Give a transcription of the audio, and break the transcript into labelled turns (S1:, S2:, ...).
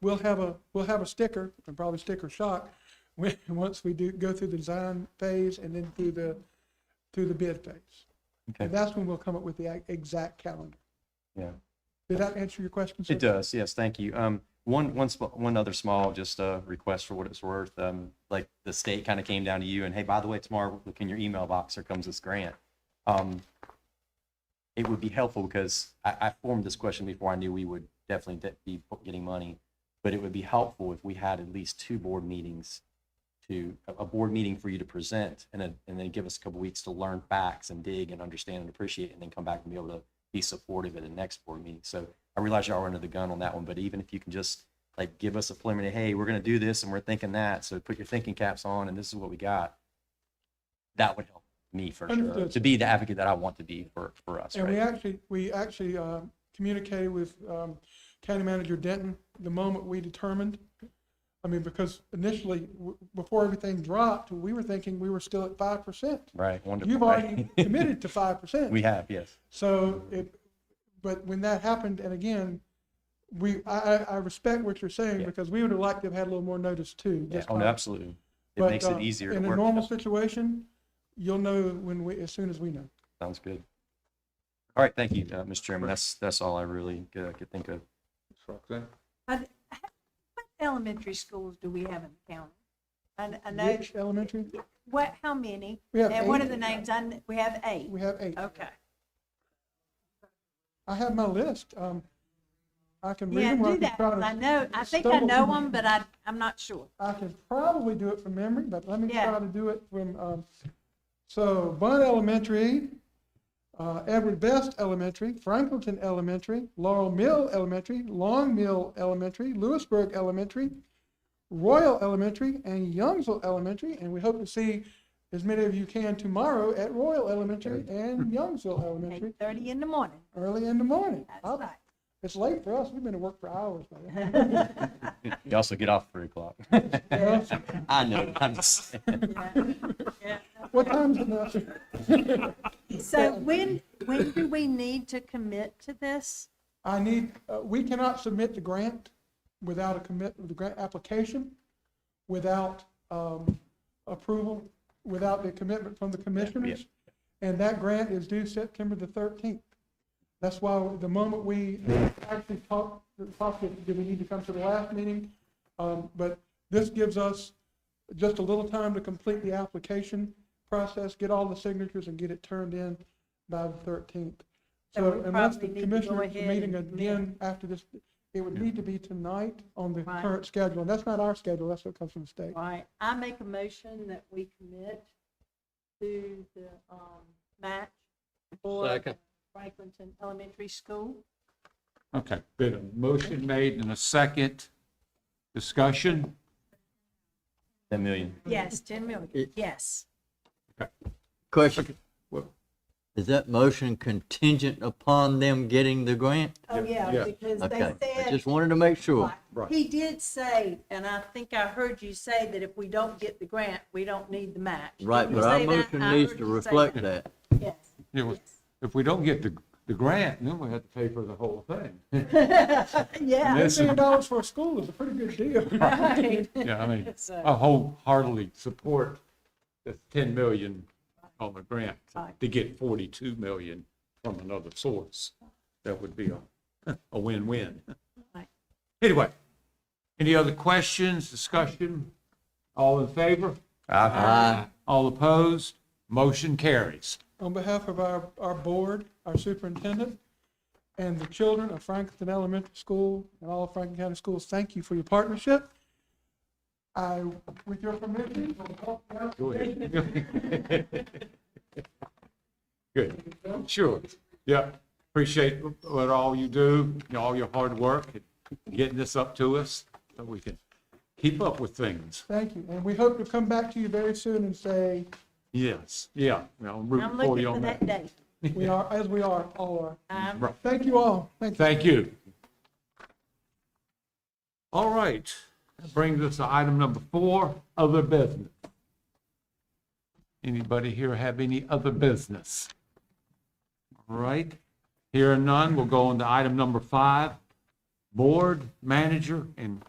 S1: we'll have a, we'll have a sticker, and probably sticker shock, when, once we do, go through the design phase and then through the, through the bid phase.
S2: Okay,
S1: And that's when we'll come up with the ac- exact calendar.
S2: yeah.
S1: Did that answer your question, sir?
S2: It does, yes, thank you. Um, one, one, sm- one other small, just uh request for what it's worth. Um, like the state kind of came down to you and hey, by the way, tomorrow, look in your email box, here comes this grant. Um, it would be helpful because I, I formed this question before I knew we would definitely de- be getting money. But it would be helpful if we had at least two board meetings to, a, a board meeting for you to present and then, and then give us a couple weeks to learn facts and dig and understand and appreciate and then come back and be able to be supportive at the next board meeting. So I realize y'all are under the gun on that one, but even if you can just like give us a preliminary, hey, we're gonna do this and we're thinking that, so put your thinking caps on and this is what we got. That would help me for sure,
S1: Understood.
S2: to be the advocate that I want to be for, for us,
S1: And we
S2: right?
S1: actually, we actually um, communicated with um, County Manager Denton the moment we determined. I mean, because initially, w- before everything dropped, we were thinking we were still at five percent.
S2: Right, wonderful.
S1: You've
S2: right?
S1: already committed to five percent.
S2: We have, yes.
S1: So it, but when that happened, and again, we, I, I, I respect what you're saying
S2: Yeah.
S1: because we would have liked to have had a little more notice too.
S2: Yeah,
S1: just
S2: Oh, no,
S1: by-
S2: absolutely. It
S1: but,
S2: makes it
S1: uh,
S2: easier to
S1: In a
S2: work.
S1: normal
S2: with.
S1: situation, you'll know when we, as soon as we know.
S2: Sounds good. All right, thank you, uh, Mr. Chairman. That's, that's all I really uh, could think of.
S3: Roxanne?
S4: Are th- What elementary schools do we have in the county? I, I know,
S1: Which elementary?
S4: what, how many?
S1: We have
S4: And what
S1: eight.
S4: are the names? I, kn- we have eight.
S1: We have eight.
S4: Okay.
S1: I have my list. Um, I can read
S4: Yeah,
S1: them. or
S4: do
S1: I can
S4: that,
S1: try
S4: 'cause I
S1: to-
S4: know, I think I
S1: stumble
S4: know
S1: through-
S4: them, but I, I'm not sure.
S1: I can probably do it from memory, but let me
S4: Yeah.
S1: try to do it from, um, so Bun Elementary, uh, Edward Best Elementary, Franklinton Elementary, Laurel Mill Elementary, Long Mill Elementary, Lewisburg Elementary, Royal Elementary, and Youngsville Elementary, and we hope to see as many of you can tomorrow at Royal Elementary and Youngsville Elementary,
S4: Eight thirty in the morning,
S1: early in the morning.
S4: that's
S1: I'll-
S4: right.
S1: It's late for us. We've been to work for hours by then.
S2: You also get off at three o'clock. I know, I'm just saying.
S4: Yeah.
S1: What time is it now?
S4: So when, when do we need to commit to this?
S1: I need, uh, we cannot submit the grant without a commit, the grant application, without um, approval, without the commitment from the commissioners. And that grant is due September the 13th. That's why the moment we actually talked, talked, that, do we need to come to the last meeting? Um, But this gives us just a little time to complete the application process, get all the signatures and get it turned in by the 13th.
S4: So
S1: So
S4: we
S1: unless the
S4: probably need to go
S1: commissioners are
S4: ahead
S1: meeting
S4: and-
S1: again after this, it would need to be tonight on the
S4: Right.
S1: current schedule. And that's not our schedule, that's what comes from the state.
S4: Right, I make a motion that we commit to the, um, match for
S3: Second.
S4: Franklinton Elementary School.
S3: Okay, been a motion made and a second discussion.
S2: A million.
S4: Yes, ten million,
S5: It-
S4: yes.
S5: Question,
S3: Well,
S5: is that motion contingent upon them getting the grant?
S4: Oh, yeah,
S3: yeah.
S4: because
S5: Okay,
S4: they
S5: I
S4: said,
S5: just wanted to make sure.
S3: Right.
S4: he did say, and I think I heard you say that if we don't get the grant, we don't need the match. Did
S5: Right,
S4: you
S5: but our
S4: say that?
S5: motion
S4: I
S5: needs
S4: heard
S5: to
S4: you say
S5: reflect that.
S4: Yes.
S3: you know, If we don't get the, the grant, then we have to pay for the whole thing.
S4: Yeah,
S3: Yes.
S1: Ten million dollars for a school is a pretty good deal.
S4: right.
S3: Yeah, I mean,
S4: So-
S3: I wholeheartedly support the ten million on the grant to get forty-two million from another source. That would be a, a win-win.
S4: Right.
S3: Anyway, any other questions, discussion? All in favor?
S5: Aye.
S3: All opposed? Motion carries.
S1: On behalf of our, our board, our superintendent, and the children of Franklin Elementary School and all of Franklin County Schools, thank you for your partnership. I, with your permission, will walk down
S3: Go ahead. Good, sure. Yeah, appreciate what all you do, you know, all your hard work, and getting this up to us, so we can keep up with things.
S1: Thank you, and we hope to come back to you very soon and say,
S3: Yes, yeah, well, I'm
S4: I'm
S3: rooting for
S4: looking
S3: you
S4: for
S3: on
S4: that
S3: that.
S4: date.
S1: we are, as we are, all are.
S4: I'm
S3: Right.
S1: Thank you all, thank you.
S3: Thank you. All right, that brings us to item number four, other business. Anybody here have any other business? All right, here are none, we'll go on to item number five, board, manager, and